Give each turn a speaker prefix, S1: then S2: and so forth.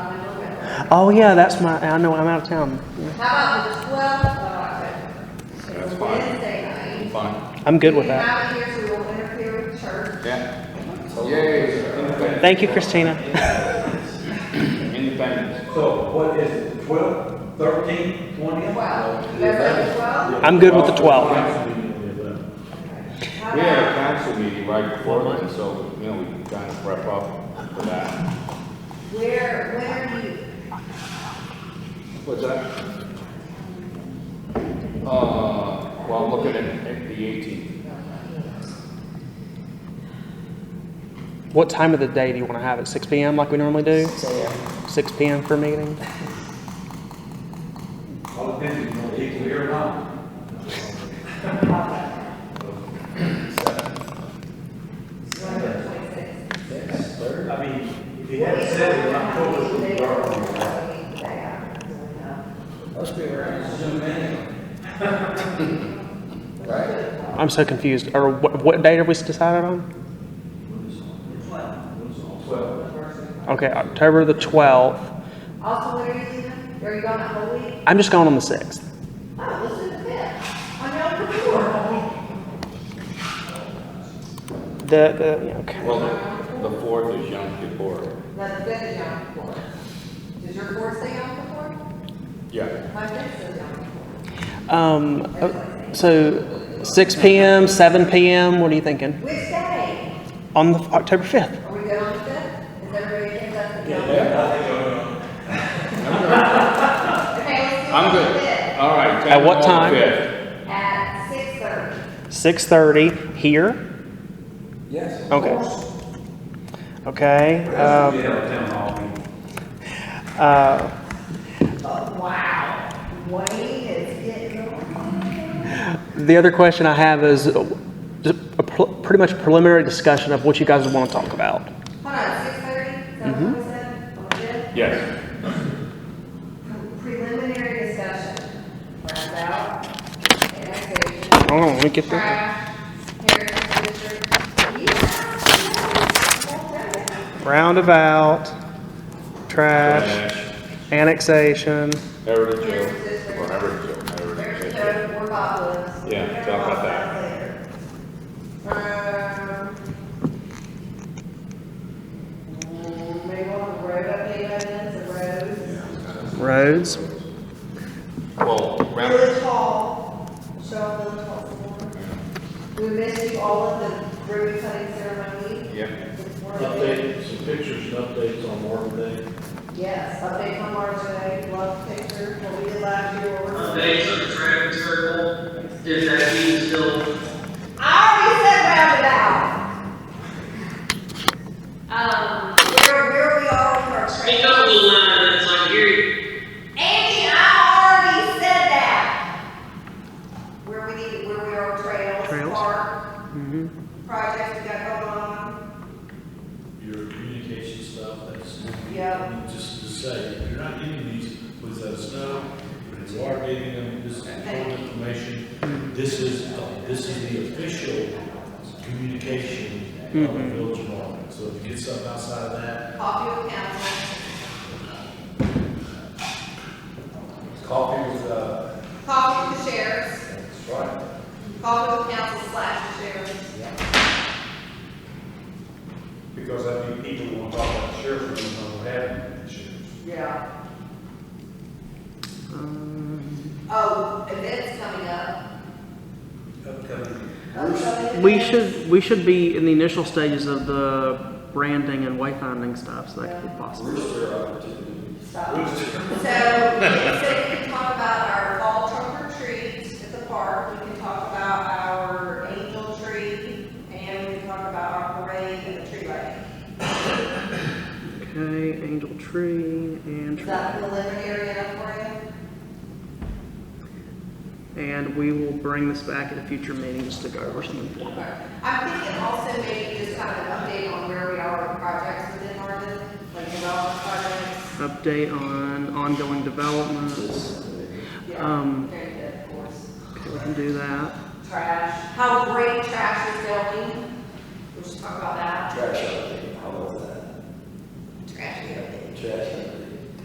S1: Oh, yeah, that's my, I know, I'm out of town.
S2: How about the twelfth of October?
S3: That's fine.
S2: Wednesday night.
S3: Fine.
S1: I'm good with
S2: We
S1: that.
S2: have it here so we won't interfere with church.
S3: Yeah. Yay.
S1: Thank you, Christina.
S3: Many thanks.
S4: So what is it, twelve, thirteen, twenty?
S2: Well, February twelfth,
S1: I'm good with the 12.
S3: We had a council meeting right before then, so, you know, we can kind of prep up for that.
S2: where, when are you?
S3: What's that? Uh, well, I'm looking at, at the eighteenth.
S1: What time of the day do you want to have it? 6 p.m. like we normally do? 6 p.m. for a meeting?
S4: All depends if you want to eat here or not. I mean, if you had seven, in October, we'd be already.
S5: Must be around Zoom in. Right?
S1: I'm so confused. Or what, what date are we decided on? Okay, October the 12th.
S2: Also, where are you leaving? Are you gone the whole week?
S1: I'm just going on the 6th.
S2: Oh, this is the fifth. I know for sure.
S1: The, the, yeah, okay.
S3: Well, the- the fourth is Yom Kippur.
S2: Now, the fifth is Yom Kippur. Does your fourth say Yom Kippur?
S3: Yeah.
S2: My fifth says Yom Kippur.
S1: Um, uh, so 6 p.m., 7 p.m., what are you thinking?
S2: Which day?
S1: On the October 5th.
S2: Are we good on the fifth? Is everybody okay? That's the Yom Kippur. Okay, let's do
S3: I'm
S2: it on the
S3: good.
S2: fifth
S3: All right.
S1: At what
S3: Temple on the
S1: time?
S3: fifth.
S2: At six thirty.
S1: 6.30 here.
S5: Yes. of
S1: Okay.
S5: course.
S1: Okay. Um,
S4: We have a town hall meeting.
S1: uh,
S2: Oh, wow. Wayne is getting on.
S1: the other question I have is uh, just a pl- pretty much preliminary discussion of what you guys want to talk about.
S2: Hold on, six thirty? Is that
S3: Mm-hmm.
S2: what we said? On the fifth?
S3: Yes.
S2: Preliminary discussion. Round out. Annexation.
S1: Hold on, let me get the
S2: Trash. Heritage district. You have to know.
S1: roundabout, trash, annexation.
S3: Heritage Hill, or Heritage Hill, Heritage
S2: There's no
S3: Hill.
S2: more bobbles.
S3: Yeah, talk about that.
S2: Um. mm, Maybe on the road update amendments, the roads.
S1: Roads.
S3: Well, round,
S2: Village Hall, show up Village Hall some more. We missed you all at the ribbon cutting ceremony.
S3: yeah,
S2: It's worth it.
S6: Update, some pictures and updates on Marvin Day.
S2: Yes, update on March Day, love picture, what we did last year. what we're-
S7: Updates on the traffic circle, if that means still
S2: I already said roundabout. Um, where, where we are with our
S7: Speak up a
S2: traffic.
S7: little louder, it's like you're,
S2: Andy, I already said that. Where we need, where we are with trails,
S1: Trails.
S2: park,
S1: Mm-hmm.
S2: projects we got going on.
S6: Your communication stuff, that's,
S2: Yep.
S6: I mean, just to say, if you're not getting these, please let us know. If you are getting them, this is important information. This is, uh, this is the official communication of the village of Marvin. So if you get something outside of that,
S2: Coffee with council,
S5: Coffee with, uh,
S2: coffee with the sheriffs,
S5: that's right.
S2: coffee with council slash the sheriffs.
S4: Because I think people want to talk about the sheriff, we don't know what happened to the sheriff.
S2: Yeah.
S1: Um.
S2: Oh, events coming up.
S5: Upcoming.
S2: Upcoming
S1: We
S2: events.
S1: should we should be in the initial stages of the branding and wayfinding stuff, so that could be possible.
S5: Rooster opportunity.
S2: Stop. So, so we can talk about our fall trunk or treat at the park, we can talk about our angel tree, and we can talk about our parade and the tree lighting.
S1: Okay, angel tree and
S2: Is
S1: tree.
S2: that preliminary enough for
S1: and we will bring this back at a future meeting just to go over some
S2: you?
S1: informal.
S2: Okay. I'm thinking also maybe just kind of an update on where we are with projects within Marvin, like development projects.
S1: Update on ongoing developments. Um.
S2: Very good, of course.
S1: Okay, we can do that.
S2: Trash, how great trash is going, we should talk about that.
S5: Trash update, how about that?
S2: Trash, yeah.
S5: Trash.